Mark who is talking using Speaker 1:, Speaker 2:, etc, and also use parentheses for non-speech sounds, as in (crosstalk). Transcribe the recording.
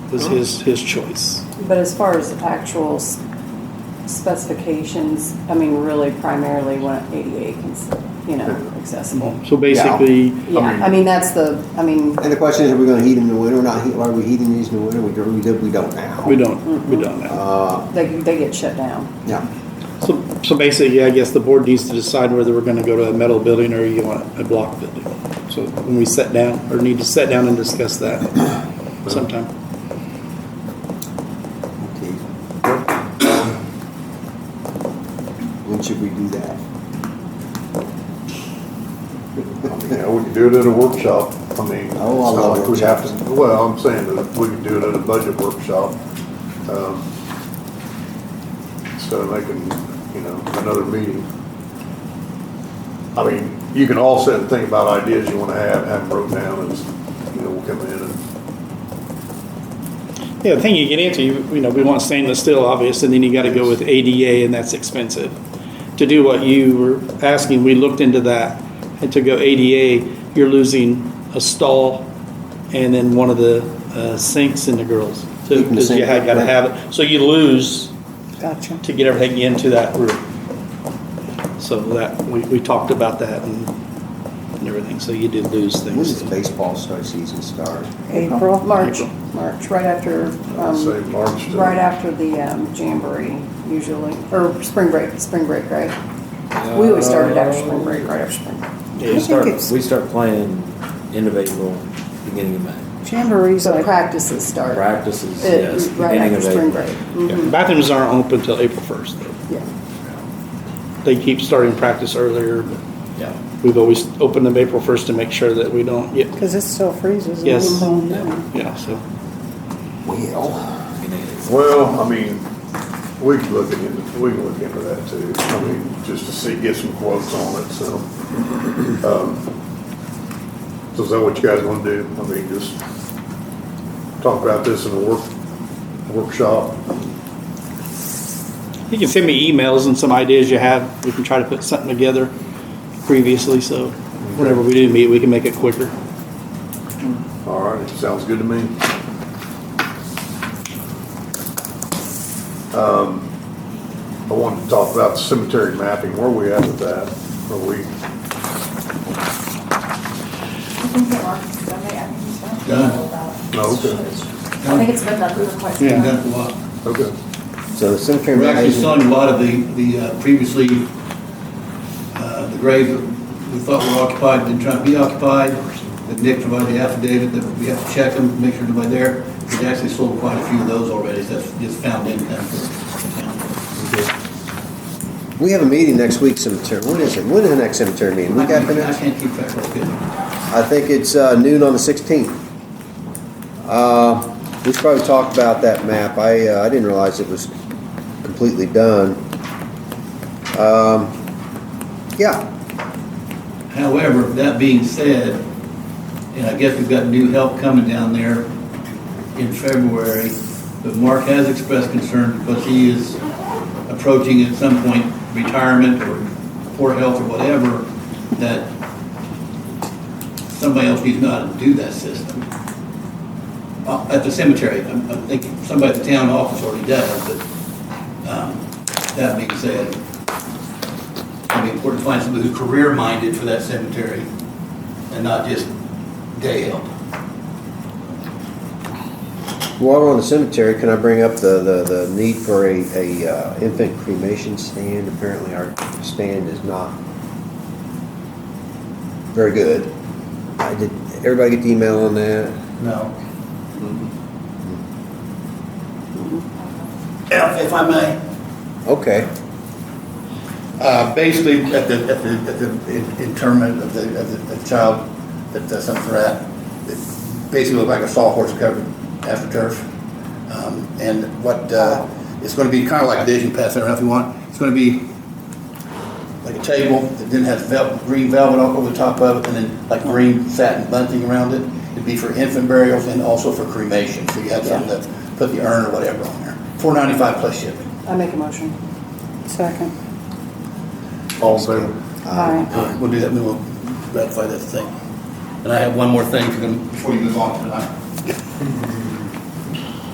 Speaker 1: was his, his choice.
Speaker 2: But as far as actual s- specifications, I mean, really primarily what ADA can, s- you know, accessible.
Speaker 1: So basically,
Speaker 2: Yeah, I mean, that's the, I mean,
Speaker 3: And the question is, are we gonna heat them in the winter or not? Heat- Are we heating these in the winter? We don't, we don't- we don't now.
Speaker 1: we don't, we don't now.
Speaker 3: Uh,
Speaker 2: they, they get shut down.
Speaker 3: yeah.
Speaker 1: So, so basically, I guess the board needs to decide whether we're gonna go to a metal building or you want a block building. So when we sit down, or need to sit down and discuss that sometime.
Speaker 3: Okay. When should we do that?
Speaker 4: (laughs) Yeah, we could do it at a workshop. I mean, it's
Speaker 3: Oh, I love
Speaker 4: not like we have
Speaker 3: workshops.
Speaker 4: to, well, I'm saying that we could do it at a budget workshop. um, Instead of making, you know, another meeting. I mean, you can all sit and think about ideas you wanna have, have them wrote down and, you know, we'll come in and,
Speaker 1: Yeah, the thing you get into, you, you know, we want stainless steel, obvious, and then you gotta go with ADA, and that's expensive. To do what you were asking, we looked into that, and to go ADA, you're losing a stall and then one of the uh, sinks in the girls. So,
Speaker 3: Keeping the
Speaker 1: because you
Speaker 3: sink
Speaker 1: had, gotta
Speaker 3: up,
Speaker 1: have it, so you lose
Speaker 2: Gotcha.
Speaker 1: to get everything into that room. So that, we, we talked about that and, and everything, so you did lose
Speaker 3: When does
Speaker 1: things.
Speaker 3: baseball start season start?
Speaker 2: April, March,
Speaker 1: April.
Speaker 2: March, right after,
Speaker 4: I'd say
Speaker 2: um,
Speaker 4: March to.
Speaker 2: right after the um, jamboree usually, or spring break, spring break, right? We always started after spring break, right after spring. break.
Speaker 5: We start,
Speaker 6: it's-
Speaker 5: we start playing end of April, beginning of May.
Speaker 6: Jamboree's
Speaker 2: So
Speaker 6: like,
Speaker 2: practices start.
Speaker 5: Practices,
Speaker 2: uh,
Speaker 5: yes,
Speaker 2: Right after
Speaker 5: beginning of
Speaker 2: spring
Speaker 5: April.
Speaker 2: break. Mhm,
Speaker 1: Bathrooms aren't open till April first, though.
Speaker 2: Yeah.
Speaker 1: they keep starting practice earlier, but
Speaker 5: Yeah.
Speaker 1: we've always opened them April first to make sure that we don't get,
Speaker 6: because it still freezes.
Speaker 1: yes,
Speaker 6: And
Speaker 1: yeah, so.
Speaker 3: Well,
Speaker 5: Beginning of April.
Speaker 4: Well, I mean, we can look into, we can look into that too. I mean, just to see, get some quotes on it, so. um, So is that what you guys want to do? I mean, just talk about this in a work, workshop?
Speaker 1: You can send me emails and some ideas you have, we can try to put something together previously, so whenever we do meet, we can make it quicker.
Speaker 4: All right, sounds good to me. Um, I wanted to talk about cemetery mapping. Where are we at with that? Are we,
Speaker 7: I think they are, don't they?
Speaker 4: no, okay,
Speaker 7: I think it's done. I think it's been done for quite some
Speaker 1: Yeah.
Speaker 7: time.
Speaker 8: done for a while.
Speaker 4: okay.
Speaker 3: So the cemetery.
Speaker 8: We're actually
Speaker 3: management-
Speaker 8: selling a lot of the, the uh, previously, uh, the graves that we thought were occupied, didn't try to be occupied. That Nick provided the affidavit that we have to check them, make sure nobody there. We actually sold quite a few of those already, so that's just found income for the county.
Speaker 3: We have a meeting next week, cemetery. When is it? When is the next cemetery meeting? We
Speaker 8: I
Speaker 3: got
Speaker 8: can't
Speaker 3: the
Speaker 8: I
Speaker 3: next?
Speaker 8: can't keep track of it.
Speaker 3: I think it's uh, noon on the 16th. Uh, we should probably talk about that map. I, uh, I didn't realize it was completely done. Um, yeah,
Speaker 8: However, that being said, and I guess we've got new help coming down there in February, but Mark has expressed concern because he is approaching at some point retirement or poor health or whatever, that somebody else needs to know how to do that system. Uh, At the cemetery, I'm, I'm thinking, somebody at the town office already does, but, um, that being said, it'd be important to find somebody who's career-minded for that cemetery and not just day help.
Speaker 3: while we're on the cemetery, can I bring up the, the, the need for a, a uh, infant cremation stand? Apparently our stand is not very good. I did, everybody get the email on that?
Speaker 8: No. Mm-hmm. If, if I may,
Speaker 3: Okay.
Speaker 9: Uh, Basically, at the, at the, at the in- interment of the, of the- the child that that's up for that, it basically looked like a sawhorse covered astroturf. Um, And what, uh, it's gonna be kind of like vision pass, I don't know if you want, it's gonna be like a table that then has velvet, green velvet all over the top of it, and then like green satin bunting around it. It'd be for infant burials and also for cremation, so you have something to put the urn or whatever on there. Four ninety-five plus shipping.
Speaker 2: I make a motion.
Speaker 6: Second.
Speaker 4: All in favor?
Speaker 2: Aye.
Speaker 9: We'll do that, we will ratify that thing. And I have one more thing for them before you move on tonight.